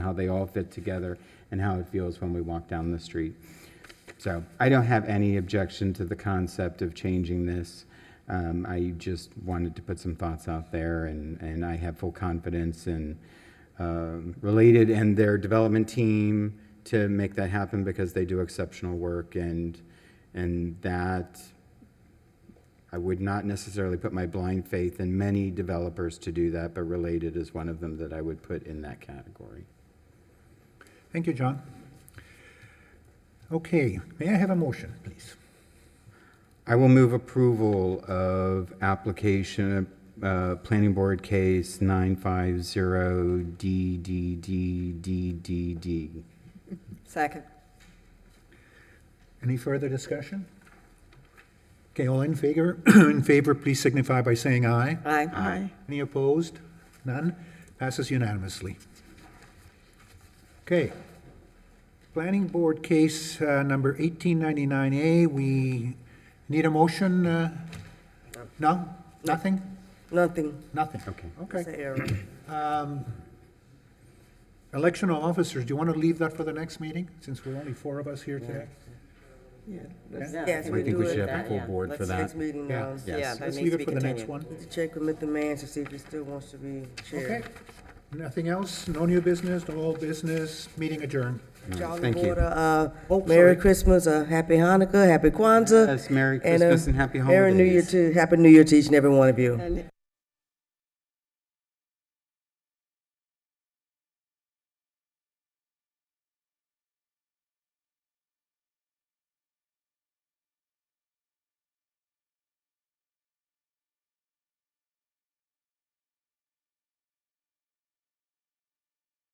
how they all fit together and how it feels when we walk down the street. So I don't have any objection to the concept of changing this. Um, I just wanted to put some thoughts out there, and, and I have full confidence in um, Related and their development team to make that happen because they do exceptional work, and, and that, I would not necessarily put my blind faith in many developers to do that, but Related is one of them that I would put in that category. Thank you, John. Okay, may I have a motion, please? I will move approval of application, uh, Planning Board Case 950DDDDDD. Second. Any further discussion? Okay, all in favor, in favor, please signify by saying aye. Aye. Aye. Any opposed? None? Passes unanimously. Okay. Planning Board Case uh, Number 1899A, we need a motion? uh, No? Nothing? Nothing. Nothing? Okay. Okay. Say error. Um, Election of officers, do you want to leave that for the next meeting, since we're only four of us here today? Yeah, Yes, can we we think do we it should have a that, full yeah. board for Let's next that. meeting, Yeah. um, Yes. yeah, that Let's needs leave to it be for the next continued. one. To Check with Mr. Mans to see if he still wants to be Okay. chair. Nothing else? No new business, no old business, meeting adjourned. Jolly Thank you. Water, uh, Oh, Merry sorry. Christmas, uh, Happy Hanukkah, Happy Kwanzaa. Yes, Merry and, uh, Christmas and Happy Merry New Year Holidays. to, Happy New Year to each and every one of you.